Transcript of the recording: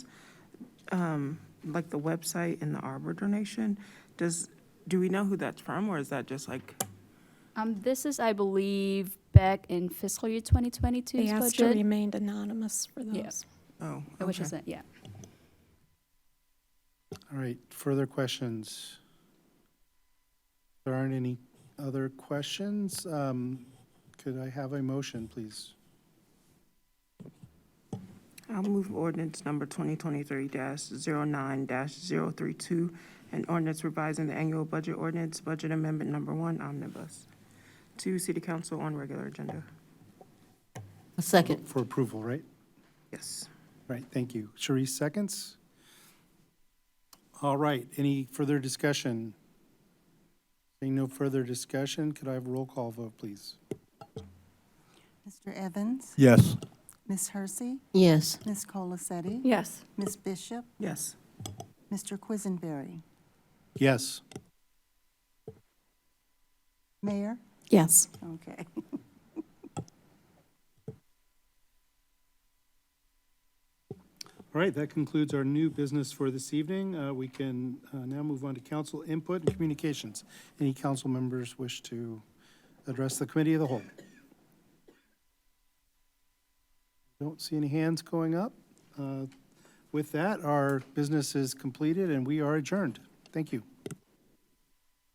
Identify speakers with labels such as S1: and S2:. S1: um, like the website and the arbor donation, does, do we know who that's from, or is that just like?
S2: Um, this is, I believe, back in fiscal year 2022's
S3: They asked to
S2: budget,
S3: remain anonymous for
S2: Yeah.
S3: those.
S1: Oh,
S2: which
S1: okay.
S2: is, a- yeah.
S4: All right, further questions? There aren't any other questions? Um, Could I have a motion, please?
S1: I'll move ordinance number 2023-09-032, an ordinance revising the annual budget ordinance, budget amendment number one omnibus, to city council on regular agenda.
S5: A second.
S4: For approval, right?
S1: Yes.
S4: Right, thank you. Sharice, seconds? All right, any further discussion? Seeing no further discussion, could I have a roll call vote, please?
S6: Mr. Evans?
S7: Yes.
S6: Ms. Hersey?
S5: Yes.
S6: Ms. Colasetti?
S3: Yes.
S6: Ms. Bishop?
S1: Yes.
S6: Mr. Quisenberry?
S4: Yes.
S6: Mayor?
S3: Yes.
S6: Okay.
S4: All right, that concludes our new business for this evening. Uh, We can uh, now move on to council input and communications. Any council members wish to address the committee of the whole? Don't see any hands going up. Uh, With that, our business is completed and we are adjourned. Thank you.